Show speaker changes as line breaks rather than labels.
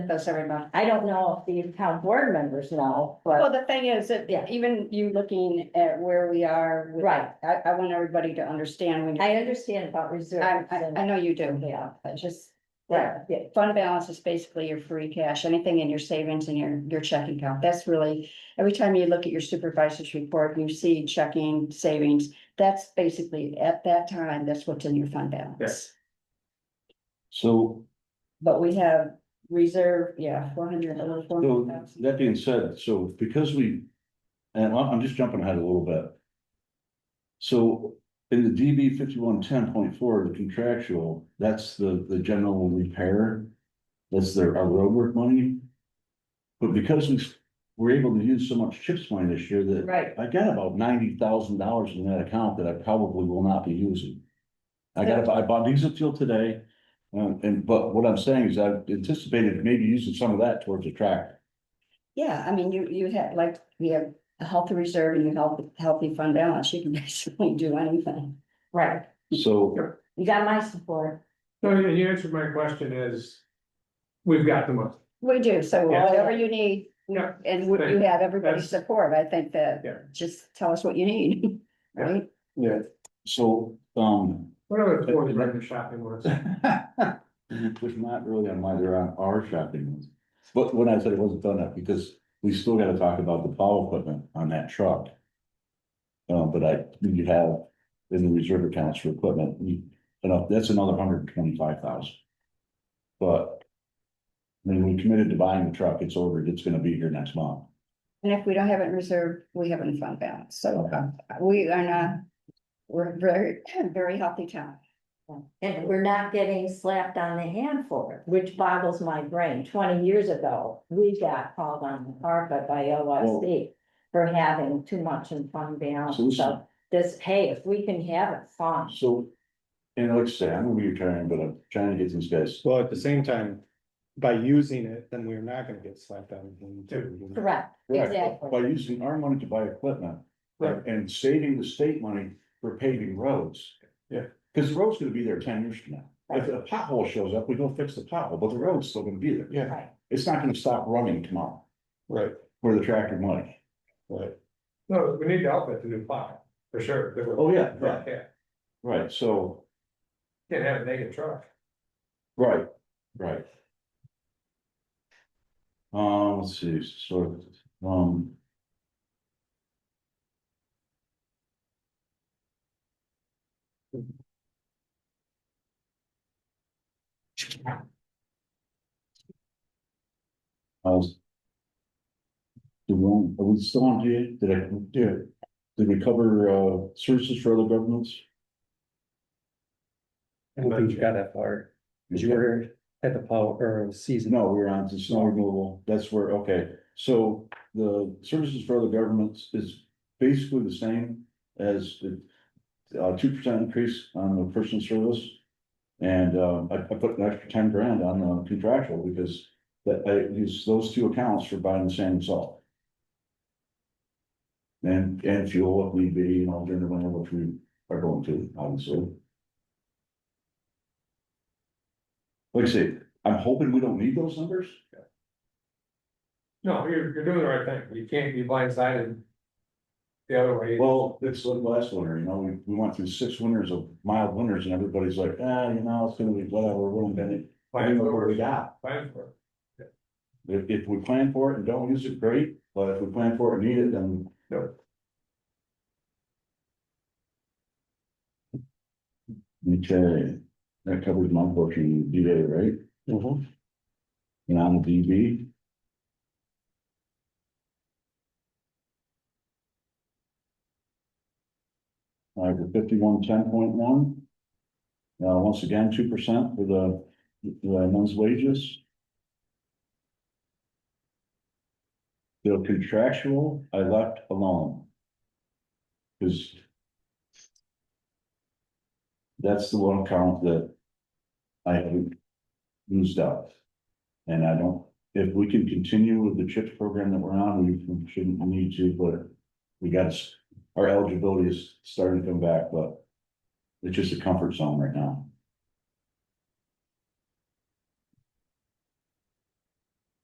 those every month.
I don't know if the town board members know,
Well,
but
the thing is that
Yeah.
even you looking at where we are. with-
Right.
I, I want everybody to understand when,
I understand about
I,
reserves
I, I
and,
know you do.
yeah,
But just,
yeah, yeah,
fund balance is basically your free cash, anything in your savings and your, your checking account. That's really, every time you look at your supervisor's report, you see checking, savings. That's basically, at that time, that's what's in your fund balance.
So,
But we have reserve, yeah, four hundred, a little four
so
hundred thousand.
that being said, so because we, and I'm, I'm just jumping ahead a little bit. So in the DB fifty-one ten point four, the contractual, that's the, the general repair. That's their, our roadwork money. But because we were able to use so much CHIPS money this year that
right.
I got about ninety thousand dollars in that account that I probably will not be using. I got, I bought diesel fuel today, um, and, but what I'm saying is I've anticipated maybe using some of that towards a tractor.
Yeah, I mean, you, you have, like, you have a healthy reserve and you have healthy fund balance, you can basically do anything.
Right,
So,
you got my support,
No, you, you answered my question is, we've got the money.
We do, so
Yeah.
whatever you need,
Yeah.
and we- you have everybody's
That's-
support, I think that,
Yeah.
just tell us what you need,
Yeah.
right?
Yeah.
so, um,
Whatever the fourth round of shopping was.
which not really on my, they're on our shopping ones. But when I said it wasn't done up, because we still gotta talk about the plow equipment on that truck. Uh, but I, you have in the reserve accounts for equipment, you, enough, that's another hundred and twenty-five thousand. But. When we committed to buying the truck, it's ordered, it's gonna be here next month.
And if we don't have it in reserve, we have it in fund balance, so uh, we are not, we're very, very healthy town.
and we're not getting slapped on the hand for it, which boggles my brain, twenty years ago, we got called on the carpet by OSC. For having too much in fund
So
balance,
this-
so this, hey, if we can have it, fine,
So. And like I say, I'm gonna be retiring, but I'm trying to get these guys.
Well, at the same time, by using it, then we're not gonna get slapped on. the hand, too, you know?
correct, exactly.
By using our money to buy equipment.
Right.
And saving the state money for paving roads.
Yeah.
Cause the road's gonna be there ten years from now. If a pothole shows up, we go fix the pothole, but the road's still gonna be there.
Yeah,
Right,
It's not gonna stop running tomorrow
right,
for the tractor money.
right.
No, we need to outfit the new plow, for sure.
Oh, yeah, yeah,
Yeah,
right, so,
can't have a naked truck.
right, right. Um, let's see, so, um. How's? The wrong, are we still on here? Did I, did, did we cover, uh, services for other governments?
I don't think you got that far, because you were at the power or season.
No, we're on to snow removal, that's where, okay, so the services for other governments is basically the same as the. Uh, two percent increase on the personal service. And um I, I put an extra ten grand on the contractual because that I use those two accounts for buying the sand and salt. And, and fuel if need be, you know, during the winter, which we are going to, obviously. Like I say, I'm hoping we don't need those numbers.
No, you're, you're doing the right thing. You can't be blindsided. The other way.
Well, it's like last winter, you know, we, we went through six winters of mild winters and everybody's like, ah, you know, it's gonna be whatever, we're gonna bend it. I
Plan
mean, what we
for it.
got,
Plan for it.
if, if we plan for it and don't use it, great, but if we plan for it and need it, then.
Yep.
Okay, that covers my portion, of DA, right? And I'm the DB. All right, with fifty-one, ten point one. Now, once again, two percent for the, the men's wages. The contractual, I left alone. Cause. That's the one account that. I haven't used up. And I don't, if we can continue with the CHIPS program that we're on, we shouldn't need to, but we got, s- our eligibility is starting to come back, but it's just a comfort zone right now.